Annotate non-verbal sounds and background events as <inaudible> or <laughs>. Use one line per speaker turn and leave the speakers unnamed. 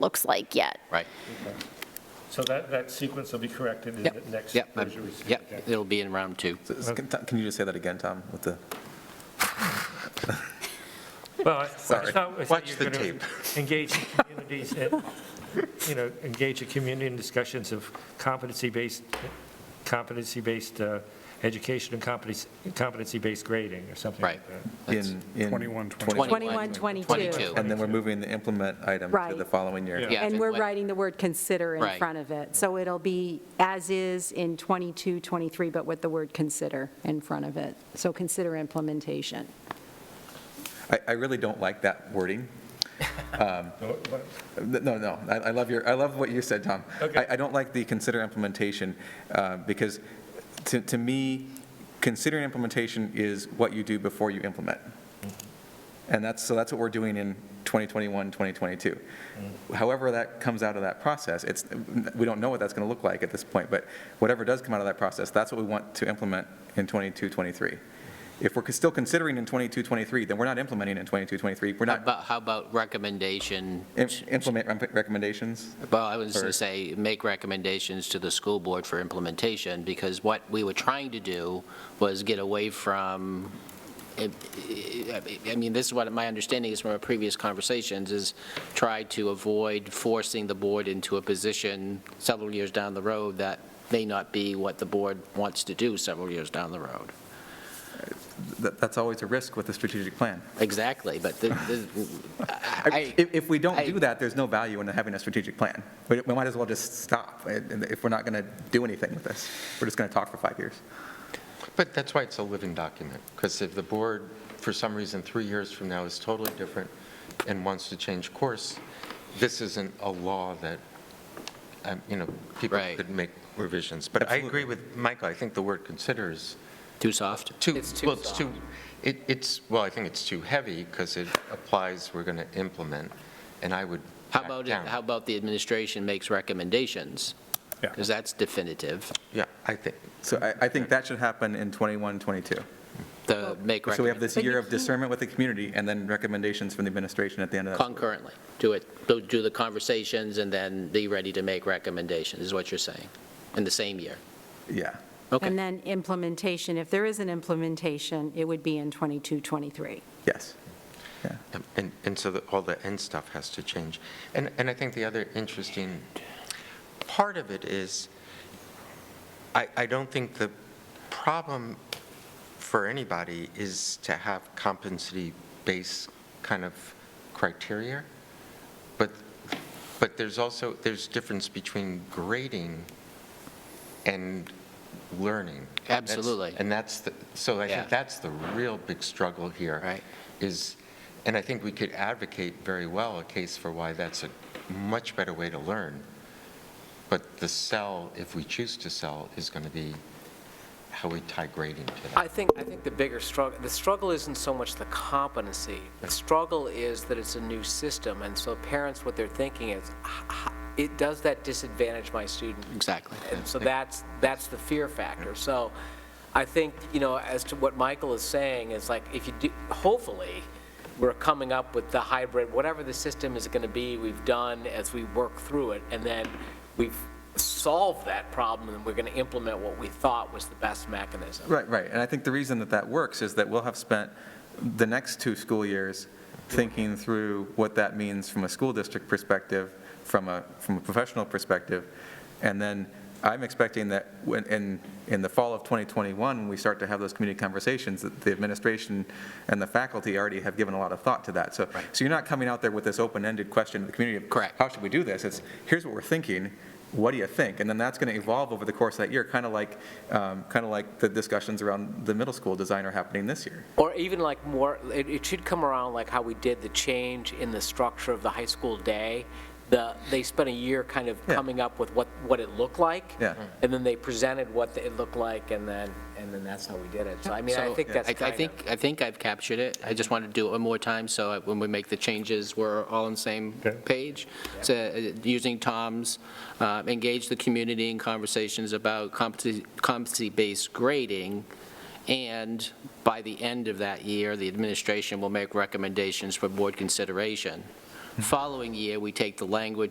looks like yet.
Right.
So that, that sequence will be corrected in the
Yep.
next
Yep. I-
version we see. Okay.
Yep. It'll be in round two.
So is- Can can you just say that again, Tom, with the?
Well, I- I
Sorry.
thought I said
Watch
you're
the
gonna Engage the communities, and, you know, engage the community in discussions of competency-based, competency-based uh, education and competency- competency-based grading or something like
Right.
that.
That's
in in
21,
21, 22.
22.
And then we're moving the implement item to
Right.
the following year.
Yeah.
Yeah,
And
fin-
we're
what-
writing the word consider in
Right.
front of it. So it'll be as is in 22, 23, but with the word consider in front of it. So consider implementation.
I, I really don't like that wording. Um,
So what-
No, no, I, I love your, I love what you said, Tom.
Okay.
I, I don't like the consider implementation, uh, because to, to me, considering implementation is what you do before you implement. And that's, so that's what we're doing in 2021, 2022. However that comes out of that process, it's, we don't know what that's going to look like at this point, but whatever does come out of that process, that's what we want to implement in 22, 23. If we're still considering in 22, 23, then we're not implementing in 22, 23, we're
How
not
about, how about recommendation?
im- implement rem- recommendations.
Well, I was going
Or-
to say, make recommendations to the school board for implementation, because what we were trying to do was get away from, I I mean, this is what my understanding is from our previous conversations, is try to avoid forcing the board into a position several years down the road that may not be what the board wants to do several years down the road.
That- That's always a risk with a strategic plan.
Exactly, but the-
<laughs>
the- I,
If, if we don't
I-
do that, there's no value in having a strategic plan. We we might as well just stop and- and if we're not going to do anything with this. We're just going to talk for five years.
But that's why it's a living document, because if the board, for some reason, three years from now is totally different and wants to change course, this isn't a law that, um, you know, people
Right.
could make revisions. But I
Absolutely.
agree with Michael, I think the word consider is
too soft?
too, well, it's too, it- it's, well, I think it's too heavy, because it applies, we're going to implement, and I would
How
back
about, it-
down.
how about the administration makes recommendations?
Yeah.
Because that's definitive,
Yeah, I think,
So I, I think that should happen in 21, 22.
the make
So we have
recommend,
this year of discernment with the community and then recommendations from the administration at the end of that.
concurrently, do it, do- do the conversations and then be ready to make recommendations, is what you're saying, in the same year?
Yeah.
Okay,
And then implementation, if there is an implementation, it would be in 22, 23.
Yes.
Um, And, and so the- all the end stuff has to change. And, and I think the other interesting part of it is, I, I don't think the problem for anybody is to have competency-based kind of criteria, but, but there's also, there's difference between grading and learning. That's-
Absolutely.
And that's, the- so I
Yeah.
think that's the real big struggle here
Right.
is, and I think we could advocate very well a case for why that's a much better way to learn. But the sell, if we choose to sell, is going to be how we tie grading to that.
I think, I think the bigger struggle, the struggle isn't so much the competency. The struggle is that it's a new system, and so parents, what they're thinking is, "H- h- it, does that disadvantage my student?
exactly.
And so that's, that's the fear factor. So I think, you know, as to what Michael is saying, is like, if you do, hopefully, we're coming up with the hybrid, whatever the system is going to be, we've done as we work through it, and then we've solved that problem, and we're going to implement what we thought was the best mechanism.
Right, right. And I think the reason that that works is that we'll have spent the next two school years thinking through what that means from a school district perspective, from a, from a professional perspective. And then I'm expecting that when, in, in the fall of 2021, when we start to have those community conversations, that the administration and the faculty already have given a lot of thought to that. So, so you're not coming out there with this open-ended question to the community of.
Correct.
How should we do this? It's, here's what we're thinking, what do you think? And then that's going to evolve over the course of that year, kind of like, um, kind of like the discussions around the middle school design are happening this year.
Or even like more, it, it should come around like how we did the change in the structure of the high school day. The, they spent a year kind of
Yeah.
coming up with what, what it looked like.
Yeah.
And then they presented what it looked like, and then, and then that's how we did it. So I mean, I
So
think that's
I-
kind
I
of-
think, I think I've captured it. I just want to do it one more time, so that when we make the changes, we're all on the same
Okay.
page. So, uh, using Tom's, uh, engage the community in conversations about competency- competency-based grading, and by the end of that year, the administration will make recommendations for board consideration. Following year, we take the language